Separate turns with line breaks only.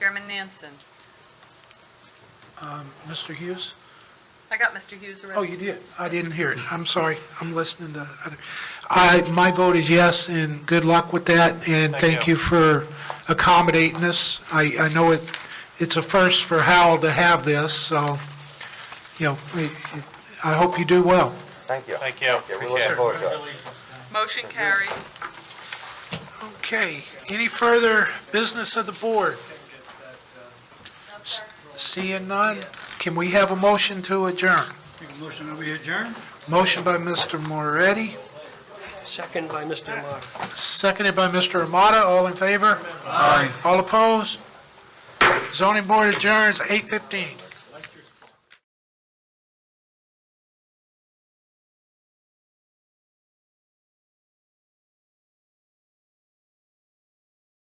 Chairman Nansen.
Mr. Hughes?
I got Mr. Hughes already.
Oh, you did. I didn't hear it. I'm sorry. I'm listening to other. I, my vote is yes, and good luck with that, and thank you for accommodating us. I, I know it, it's a first for Howell to have this, so, you know, I I hope you do well.
Thank you.
Thank you.
We're looking forward to it.
Motion carries.
Okay, any further business of the board? S- Seeing none, can we have a motion to adjourn?
Make a motion that we adjourn?
Motion by Mr. Moretti,
Second by Mr. Mock.
seconded by Mr. Amata, all in favor? Aye. All opposed? Zoning Board adjourns 8:15.